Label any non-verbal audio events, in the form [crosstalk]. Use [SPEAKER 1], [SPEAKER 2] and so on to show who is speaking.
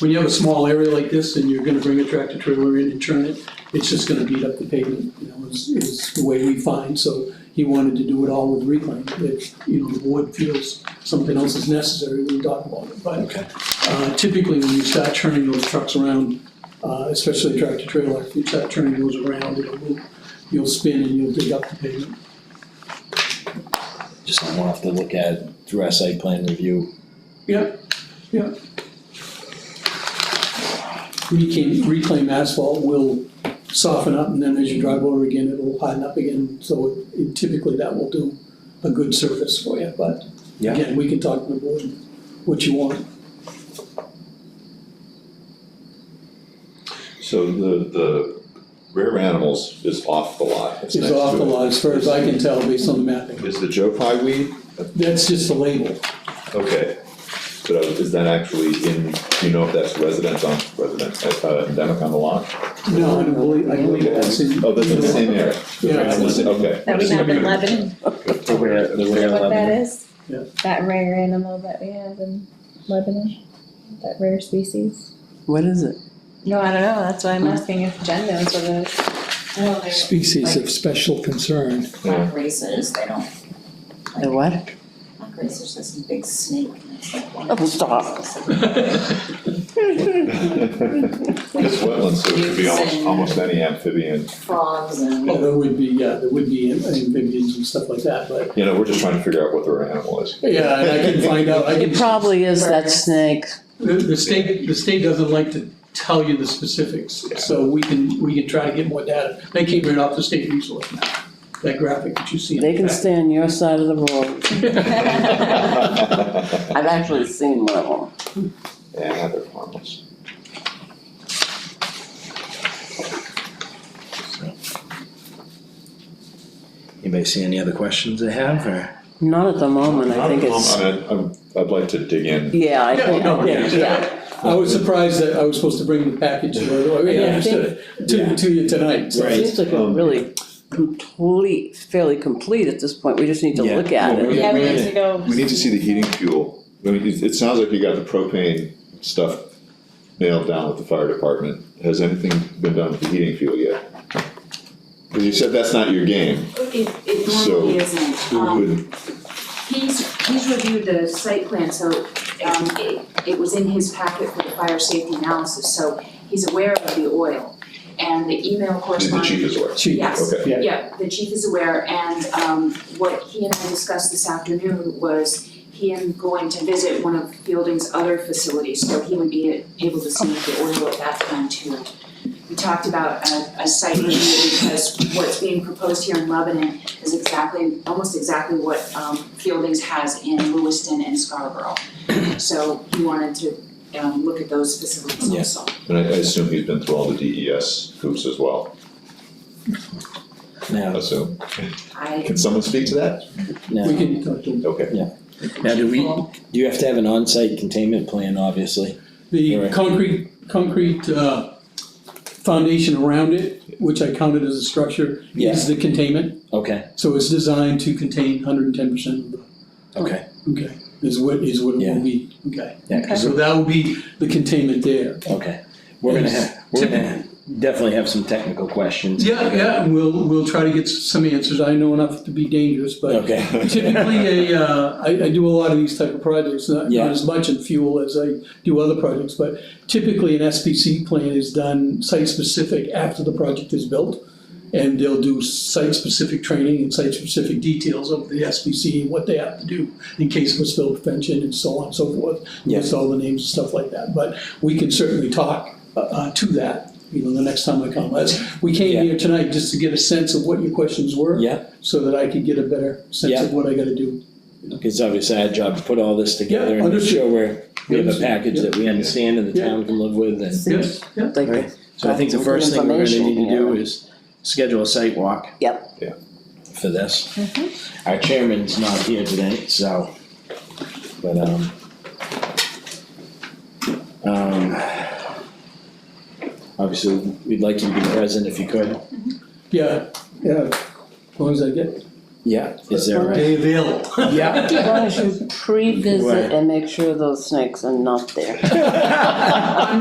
[SPEAKER 1] when you have a small area like this and you're gonna bring a tractor trailer in and turn it, it's just gonna beat up the pavement, you know, is, is the way we find, so he wanted to do it all with reclaim, if, you know, the board feels something else is necessary, we can talk about it, but
[SPEAKER 2] Okay.
[SPEAKER 1] uh, typically when you start turning those trucks around, uh, especially a tractor trailer, if you start turning those around, it'll loop, you'll spin and you'll dig up the pavement.
[SPEAKER 2] Just something we'll have to look at through our site plan review.
[SPEAKER 1] Reclaim, reclaim asphalt will soften up and then as you drive over again, it'll harden up again, so it- it typically that will do a good surface for you, but
[SPEAKER 2] Yeah.
[SPEAKER 1] again, we can talk to the board what you want.
[SPEAKER 3] So the, the rare animals is off the lot.
[SPEAKER 1] It's off the lot as far as I can tell based on the mapping.
[SPEAKER 3] Is the Joe Pye weed,
[SPEAKER 1] That's just the label.
[SPEAKER 3] okay, but uh, is that actually in, do you know if that's residents on, residents, uh, endemic on the lot?
[SPEAKER 1] No, I don't believe, I believe that's in.
[SPEAKER 3] Oh, that's in the same area?
[SPEAKER 1] Yeah.
[SPEAKER 3] That's in the same- Okay.
[SPEAKER 4] That we have in
[SPEAKER 3] [laughs]
[SPEAKER 4] Lebanon,
[SPEAKER 2] The rare, the
[SPEAKER 4] is
[SPEAKER 2] rare
[SPEAKER 4] that what that
[SPEAKER 2] lebanon.
[SPEAKER 4] is?
[SPEAKER 1] Yeah.
[SPEAKER 4] That rare animal that we have in Lebanon, that rare species?
[SPEAKER 5] What is it?
[SPEAKER 4] No, I don't know, that's why I'm asking if Jen knows what it is.
[SPEAKER 6] Well, they're
[SPEAKER 7] species of special concern.
[SPEAKER 3] Yeah.
[SPEAKER 6] like racers, they don't,
[SPEAKER 5] The what?
[SPEAKER 6] like racers, there's some big snake. and it's like one-
[SPEAKER 5] Oh, stop.
[SPEAKER 3] It's wetland, so it could be almost, almost any amphibian,
[SPEAKER 6] Frogs and.
[SPEAKER 1] Oh, there would be, yeah, there would be amphibians and stuff like that, but,
[SPEAKER 3] you know, we're just trying to figure out what the rare animal
[SPEAKER 4] [laughs]
[SPEAKER 3] is.
[SPEAKER 1] yeah, and I can find out, I can.
[SPEAKER 5] It probably is that
[SPEAKER 6] Birds.
[SPEAKER 5] snake.
[SPEAKER 1] The, the state, the state doesn't like to tell you the specifics, so we can, we can try to get more data. They came right off the state resource map, that graphic that you see. in
[SPEAKER 5] They can
[SPEAKER 1] the
[SPEAKER 5] stay on your side of the [laughs] road.
[SPEAKER 1] [laughs]
[SPEAKER 4] Well,
[SPEAKER 5] I've actually seen one of them.
[SPEAKER 3] Yeah, they're harmless.
[SPEAKER 2] Anybody see any other questions they have or?
[SPEAKER 5] Not at the moment, I think it's,
[SPEAKER 3] I mean, I'm, Um, I'd like to dig in.
[SPEAKER 5] yeah, I think,
[SPEAKER 1] no,
[SPEAKER 5] yeah, yeah.
[SPEAKER 1] back. I was surprised that I was supposed to bring the package, by the way, I mean, I
[SPEAKER 5] Yeah, I
[SPEAKER 1] understood it, to, to you tonight, so.
[SPEAKER 5] It
[SPEAKER 2] Right.
[SPEAKER 5] seems like a
[SPEAKER 3] Um,
[SPEAKER 5] really complete, fairly complete at this point. We just need to
[SPEAKER 2] Yeah.
[SPEAKER 5] look at
[SPEAKER 3] Well,
[SPEAKER 5] it.
[SPEAKER 3] we-
[SPEAKER 4] Yeah, we
[SPEAKER 3] we-
[SPEAKER 4] need to go.
[SPEAKER 3] We need to see the heating fuel. I mean, it, it sounds like you got the propane stuff nailed down with the fire department. Has anything been done with the heating fuel yet? Cause you said that's not your game,
[SPEAKER 8] It, it normally isn't,
[SPEAKER 3] who
[SPEAKER 8] um,
[SPEAKER 3] would,
[SPEAKER 8] he's, he's reviewed the site plan, so, um, it, it was in his packet for the fire safety analysis, so he's aware of the oil. And the email
[SPEAKER 3] the the
[SPEAKER 8] correspondence.
[SPEAKER 3] chief is aware?
[SPEAKER 1] Chief,
[SPEAKER 8] Yes,
[SPEAKER 3] Okay.
[SPEAKER 1] Yeah.
[SPEAKER 8] yeah, the chief is aware, and um what he and I discussed this afternoon was him going to visit one of Fielding's other facilities, so he would be able to see the oil at that time too. We talked about a a site review because what's being proposed here in Lebanon is exactly, almost exactly what um Fielding's has in Lewiston and Scarborough. So he wanted to um look at those facilities
[SPEAKER 2] Yeah.
[SPEAKER 8] also.
[SPEAKER 3] And I, I assume he's been through all the DES hoops as well, I
[SPEAKER 2] Now,
[SPEAKER 3] assume.
[SPEAKER 8] I
[SPEAKER 3] Can someone speak to that?
[SPEAKER 1] We
[SPEAKER 2] now,
[SPEAKER 1] can talk to him.
[SPEAKER 3] Okay.
[SPEAKER 2] now do we, do you have to have an on-site containment plan, obviously?
[SPEAKER 1] The
[SPEAKER 2] Right.
[SPEAKER 1] concrete, concrete, uh, foundation around it, which I counted as a structure,
[SPEAKER 2] Yeah.
[SPEAKER 1] is the containment.
[SPEAKER 2] Okay,
[SPEAKER 1] So it's designed to contain hundred and ten percent of the
[SPEAKER 2] okay,
[SPEAKER 1] Okay, is what, is what it
[SPEAKER 2] Yeah.
[SPEAKER 1] will be, okay.
[SPEAKER 2] yeah, 'cause
[SPEAKER 1] So that will be the containment there.
[SPEAKER 2] Okay, we're gonna have, we're gonna definitely have some technical questions.
[SPEAKER 1] Yeah, yeah, and we'll, we'll try to get s- some answers, I know enough to be dangerous, but
[SPEAKER 2] Okay.
[SPEAKER 1] [laughs] typically a, uh, I, I do a lot of these type of projects, not,
[SPEAKER 2] Yeah.
[SPEAKER 1] not as much in fuel as I do other projects, but typically an SPC plan is done site-specific after the project is built, and they'll do site-specific training and site-specific details of the SPC and what they have to do in case of a spill prevention and so on and so forth.
[SPEAKER 2] Yeah.
[SPEAKER 1] List all the names and stuff like that, but we can certainly talk, uh, uh, to that, you know, the next time I come. That's, we
[SPEAKER 2] Yeah.
[SPEAKER 1] came here tonight just to get a sense of what your questions were.
[SPEAKER 2] Yeah.
[SPEAKER 1] So that I could get a better sense of
[SPEAKER 2] Yeah.
[SPEAKER 1] what I gotta do.
[SPEAKER 2] It's obviously our job to put all this
[SPEAKER 1] Yeah,
[SPEAKER 2] together and make
[SPEAKER 1] understood.
[SPEAKER 2] sure we're, we have a package that we understand and the
[SPEAKER 1] Yeah.
[SPEAKER 2] town can live with and.
[SPEAKER 1] Yes, yeah.
[SPEAKER 5] Like,
[SPEAKER 2] Right. So I think the first thing we're gonna need to do is schedule a site walk.
[SPEAKER 5] Yep.
[SPEAKER 3] Yeah.
[SPEAKER 2] For this. Our chairman's not here today, so, but, um. Um. Obviously, we'd like you to be present if you could.
[SPEAKER 1] Yeah, yeah, as long as I get
[SPEAKER 2] Yeah, is there a,
[SPEAKER 1] They available.
[SPEAKER 2] yeah,
[SPEAKER 5] As long as you pre-visit and make sure those snakes are not there.